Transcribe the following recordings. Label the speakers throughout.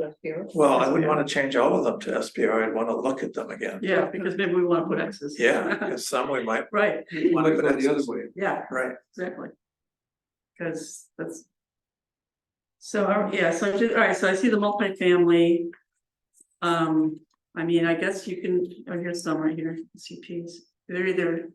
Speaker 1: SPR.
Speaker 2: Well, I wouldn't wanna change all of them to SPR, I'd wanna look at them again.
Speaker 3: Yeah, because maybe we wanna put X's.
Speaker 2: Yeah, because some we might,
Speaker 3: Right,
Speaker 2: wanna go the other
Speaker 4: way.
Speaker 3: yeah,
Speaker 2: right,
Speaker 3: exactly. Cause that's. So, all- yeah, so, I do- all right, so I see the multifamily. Um, I mean, I guess you can, oh, here's some right here, CPs, they're either.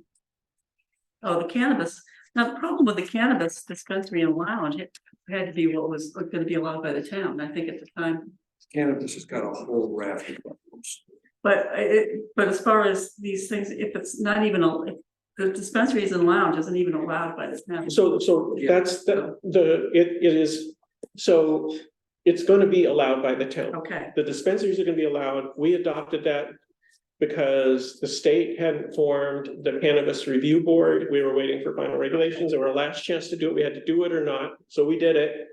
Speaker 3: Oh, the cannabis, now the problem with the cannabis dispensary and lounge, it had to be what was gonna be allowed by the town, I think at the time.
Speaker 4: Cannabis has got a whole raft of problems.
Speaker 3: But I- it, but as far as these things, if it's not even, a if the dispensaries and lounge isn't even allowed by the town.
Speaker 5: So, so
Speaker 4: Yeah.
Speaker 5: that's the, the, it, it is, so it's gonna be allowed by the town.
Speaker 3: Okay,
Speaker 5: The dispensaries are gonna be allowed. We adopted that because the state hadn't formed the cannabis review board. We were waiting for final regulations. It was our last chance to do it. We had to do it or not, so we did it.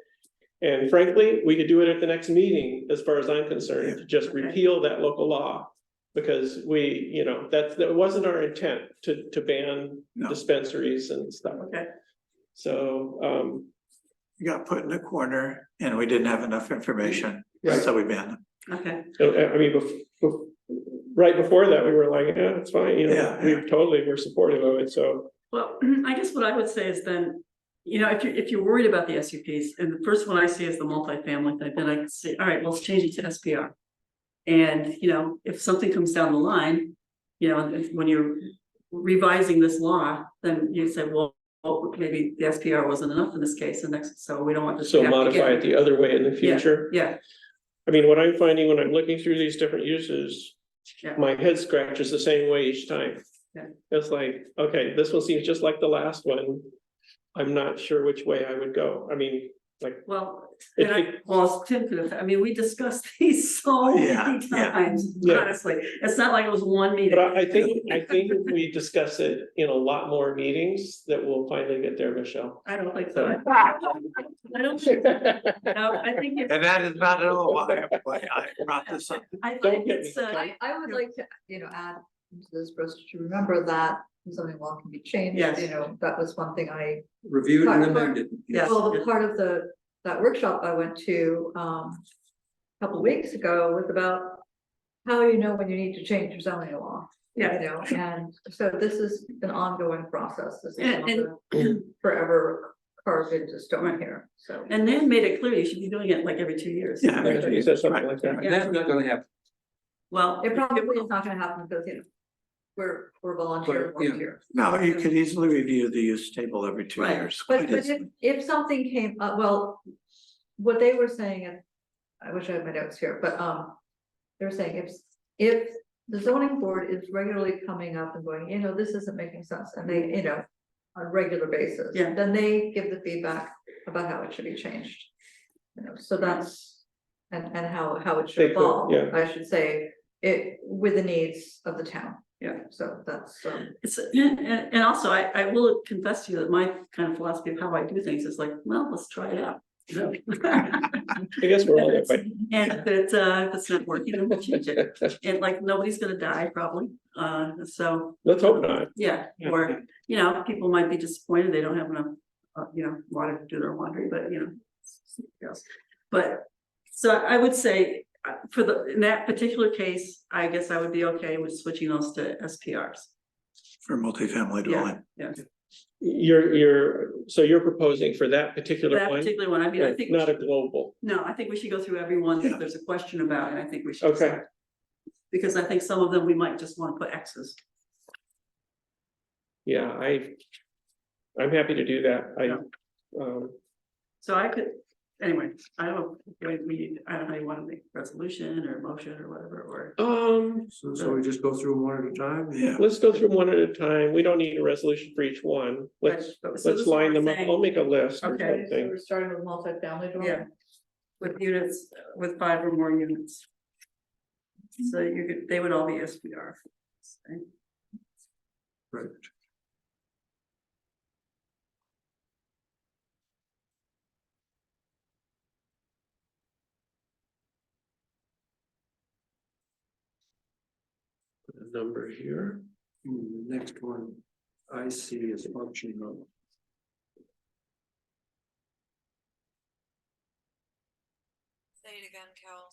Speaker 5: And frankly, we could do it at the next meeting, as far as I'm concerned, just
Speaker 3: Okay.
Speaker 5: repeal that local law. Because we, you know, that, that wasn't our intent to, to ban
Speaker 2: No.
Speaker 5: dispensaries and stuff.
Speaker 3: okay,
Speaker 5: So, um,
Speaker 2: you got put in a corner and we didn't have enough information,
Speaker 5: Right.
Speaker 2: so we banned them.
Speaker 3: okay,
Speaker 5: I, I mean, bef- bef- right before that, we were like, yeah, it's fine, you know,
Speaker 2: Yeah,
Speaker 5: we
Speaker 2: yeah.
Speaker 5: totally were supportive of it, so.
Speaker 3: well, I guess what I would say is then. You know, if you, if you're worried about the SUPs, and the first one I see is the multifamily type, then I can say, all right, well, let's change it to SPR. And, you know, if something comes down the line, you know, if- when you're revising this law, then you say, well. well, maybe the SPR wasn't enough in this case, and next, so we don't want this. to
Speaker 5: So
Speaker 3: happen
Speaker 5: modify
Speaker 3: again.
Speaker 5: it the other way in the future.
Speaker 3: Yeah,
Speaker 5: I mean, what I'm finding when I'm looking through these different uses.
Speaker 3: Yeah.
Speaker 5: My head scratches the same way each time.
Speaker 3: Yeah.
Speaker 5: It's like, okay, this one seems just like the last one. I'm not sure which way I would go. I mean,
Speaker 3: Well,
Speaker 5: If
Speaker 3: and I, well, Tim could have, I mean, we discussed these so
Speaker 2: Yeah,
Speaker 3: many
Speaker 2: yeah.
Speaker 3: times,
Speaker 5: Oh, Yeah.
Speaker 3: honestly, it's not like it was one
Speaker 5: but
Speaker 3: meeting.
Speaker 5: I, I think, I think if we discuss it in a lot more meetings that we'll finally get there, Michelle.
Speaker 3: I don't think so. I don't think, no, I think, it-
Speaker 2: And that is not at all why why I brought this up.
Speaker 3: I
Speaker 5: Don't
Speaker 3: think
Speaker 5: get
Speaker 3: it's,
Speaker 5: me
Speaker 3: uh,
Speaker 1: I, I would like to, you know, add to this, Bruce, to remember that zoning law can be changed,
Speaker 3: Yes.
Speaker 1: you know, that was one thing I.
Speaker 4: Reviewed and
Speaker 1: Part- part-
Speaker 4: amended.
Speaker 3: Yes.
Speaker 1: Well, the part of the, that workshop I went to, um, a couple weeks ago was about how you know when you need to change your zoning law, you
Speaker 3: yeah,
Speaker 1: know, and so this is an ongoing process, this is
Speaker 3: And-
Speaker 1: not
Speaker 3: and-
Speaker 1: a forever carved into stone here, so.
Speaker 3: and Nan made it clear you should be doing it like every two years.
Speaker 2: Yeah.
Speaker 5: Right, you said something like that.
Speaker 4: And That's not gonna happen,
Speaker 3: Well,
Speaker 1: It probably is not gonna happen because, you know, we're, we're volunteer
Speaker 4: But, yeah.
Speaker 1: work here.
Speaker 2: No, you could easily review the use table every two
Speaker 3: Right.
Speaker 2: years.
Speaker 1: But,
Speaker 2: quite
Speaker 1: but if,
Speaker 2: easily.
Speaker 1: if something came up, well, what they were saying, and I wish I had my notes here, but, um, they're saying if, if the zoning board is regularly coming up and going, you know, this isn't making sense, and they, you know, on a regular basis.
Speaker 3: Yeah.
Speaker 1: Then they give the feedback about how it should be changed. You know, so that's, and, and how, how it
Speaker 5: They
Speaker 1: should
Speaker 5: could,
Speaker 1: evolve,
Speaker 5: yeah.
Speaker 1: I should say, it, with the needs of the town.
Speaker 3: Yeah.
Speaker 1: So that's, um,
Speaker 3: it's, and, and and also I, I will confess to you that my kind of philosophy of how I do things is like, well, let's try it out.
Speaker 5: I guess we're all that way.
Speaker 3: And if it's, uh, if it's not working, then we'll change it. And like, nobody's gonna die probably, uh, so.
Speaker 5: Let's hope not.
Speaker 3: Yeah,
Speaker 5: Yeah.
Speaker 3: or, you know, people might be disappointed, they don't have enough, uh, you know, water to do their laundry, but you know. yes. But, so I would say, uh, for the, in that particular case, I guess I would be okay with switching those to SPRs.
Speaker 2: For multifamily
Speaker 3: Yeah.
Speaker 2: dwelling.
Speaker 5: You're, you're, so you're proposing for that particular
Speaker 3: That
Speaker 5: one?
Speaker 3: particular one, I mean, I
Speaker 5: Right,
Speaker 3: think, we
Speaker 5: Not a
Speaker 3: should-
Speaker 5: global.
Speaker 3: no, I think we should go through every one
Speaker 2: Yeah.
Speaker 3: that there's a question about, and I think we should.
Speaker 5: Okay.
Speaker 3: decide. Because I think some of them, we might just wanna put X's,
Speaker 5: Yeah, I, I'm happy to do that. I,
Speaker 3: Yeah.
Speaker 5: um,
Speaker 3: so I could, anyway, I don't, we- we, I don't know, you wanna make resolution or motion or whatever, or.
Speaker 5: um,
Speaker 4: so, so we just go through them one at a time?
Speaker 2: Yeah,
Speaker 5: let's go through them one at a time. We don't need a resolution for each one. Let's,
Speaker 3: but- so this
Speaker 5: let's
Speaker 3: is what
Speaker 5: line
Speaker 3: we're
Speaker 5: them up.
Speaker 3: saying.
Speaker 5: I'll make a list or
Speaker 3: Okay.
Speaker 1: so
Speaker 5: something.
Speaker 1: we're starting with multifamily dwelling.
Speaker 3: Yeah. With units, with five or more units. So you could, they would all be SPR. okay?
Speaker 4: Right.
Speaker 5: Put a Number here.
Speaker 4: Hmm, The next one I see is function of.
Speaker 6: Say it again, Cal.